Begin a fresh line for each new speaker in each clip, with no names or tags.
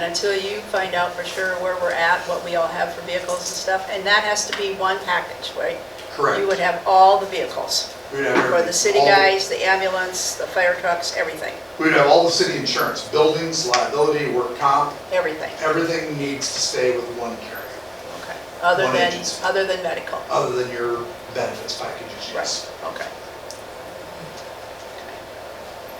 until you find out for sure where we're at, what we all have for vehicles and stuff, and that has to be one package, right?
Correct.
You would have all the vehicles,
We'd have
for the city
all-
guys, the ambulance, the fire trucks, everything,
We'd have all the city insurance, buildings, liability, work comp,
everything,
everything needs to stay with one carrier,
okay? Other
One
than,
agency.
other than medical,
other than your benefits packages, yes.
right, okay.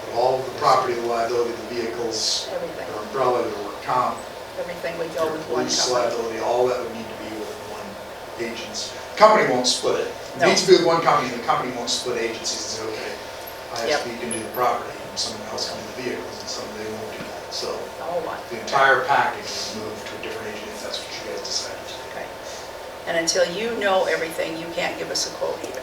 But All of the property, the liability, the vehicles,
Everything,
your umbrella, your work comp,
everything would
your
go with one
police
company.
liability, all that would need to be with one agency. Company won't split it. It
No.
needs to be with one company, and the company won't split agencies and say, okay,
Yep.
ISP can do the property, and someone else can do the vehicles, and some, they won't do that, so.
All one,
the entire package is moved to a different agent if that's what you guys decided to do.
okay. And until you know everything, you can't give us a quote either,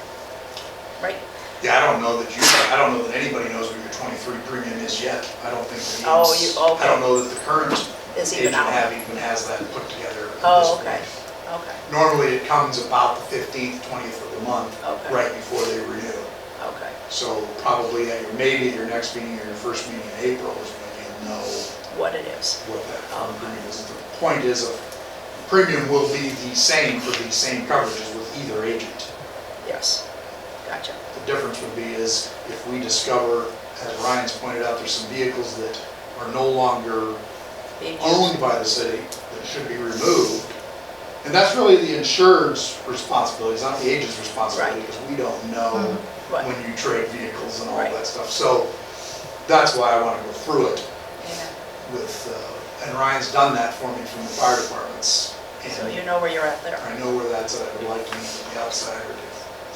right?
Yeah, I don't know that you, I don't know that anybody knows what your twenty-three premium is yet. I don't think that
Oh,
he's-
you- okay.
I don't know that the current
Is
agent
even out.
have even has that put together. at
Oh,
this
okay,
point.
okay,
Normally, it comes about the fifteenth, twentieth of the month,
Okay.
right before they renew.
okay,
So probably at your, maybe at your next meeting or your first meeting in April is when you'll know
what it is,
what that current premium is. The point is, a premium will be the same for the same coverages with either agent.
yes, gotcha,
The difference would be is if we discover, as Ryan's pointed out, there's some vehicles that are no longer
being used,
owned by the city that should be removed. And that's really the insured's responsibility, it's not the agent's responsibility,
Right. Mm-hmm.
because we don't know
Right.
when you trade vehicles and all
Right.
that stuff. So that's why I want to go through it
yeah,
with, uh, and Ryan's done that for me from the fire departments.
so
And
you know where you're at there.
I know where that's at, I'd like to meet with the outside or to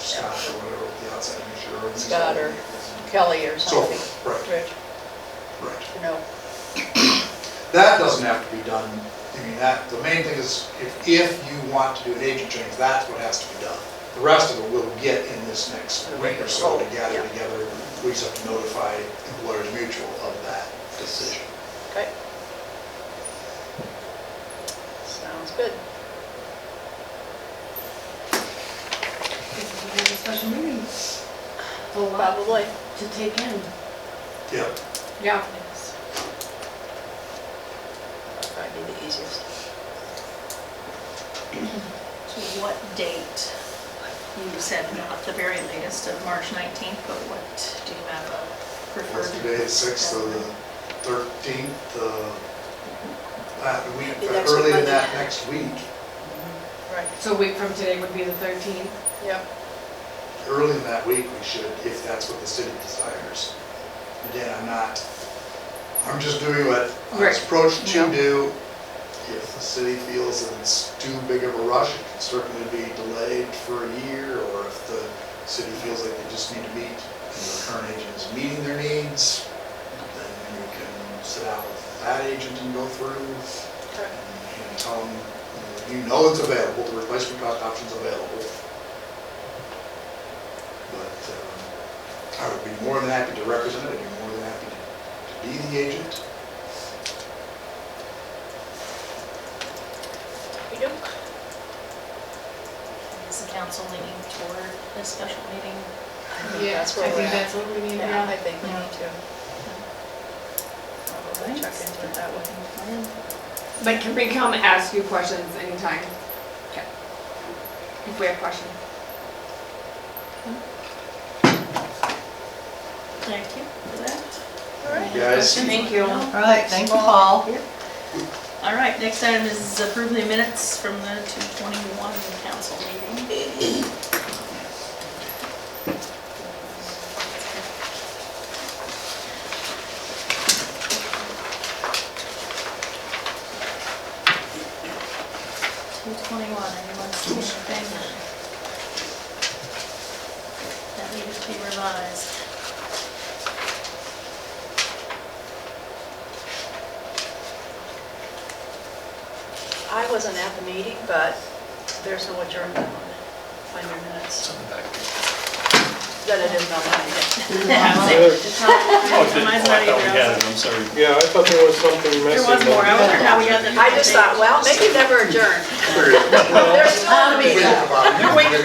Scott or whatever, with the outside insurer.
Scott or- Kelly or
So,
something,
right,
Rich,
right.
you know,
That doesn't have to be done, I mean, that, the main thing is, if, if you want to do an agent change, that's what has to be done. The rest of it will get in this next
The
week or so to
regular-
gather
yeah.
together. We just have to notify Employers Mutual of that decision.
okay. Sounds good.
This is a very special meeting. A lot
Probably.
to take in.
Yep.
Yeah.
That'd be the easiest.
To what date? You said not the very latest of March 19th, but what, do you have a
What's
preferred?
today, the sixth, so the thirteenth, uh, that week,
Be next week,
early in
Monday.
that next week,
Right,
So a week from today would be the 13th.
yeah,
early in that week, we should, if that's what the city desires. Again, I'm not, I'm just doing what I was
Right.
approached to
Yeah.
do. If the city feels that it's too big of a rush, it can certainly be delayed for a year, or if the city feels like they just need to meet, and the current agent is meeting their needs, then you can sit out with that agent and go through
okay,
and tell them, you know, you know it's available, the replacement cost option's available. But um, I would be more than happy to represent it, I'd be more than happy to to be the agent.
we do.
Is the council leaning toward a special meeting?
I think that's where
I
we're
think
at.
that's what we need,
Yeah, I
yeah.
think we need to. Probably check into it that way.
But can we come ask you questions anytime? Okay. If we have questions.
Thank you for that.
All right.
You guys,
Thank you.
No?
All right, thank you, Paul.
All right, next item is approve the minutes from the 221 council meeting. Two twenty-one, anyone see anything? That needed to be revised.
I wasn't at the meeting, but there's no adjournment on it, on your minutes. That it is not on yet.
It's
Oh,
not-
did- oh, I
mine's not
thought
even
we had
out.
it, I'm sorry.
Yeah, I thought there was something
There
missing.
was more, I wondered how we got the.
I just thought, well, maybe never adjourn.
period.
There's still
Think
a meeting.
about it.
They're waiting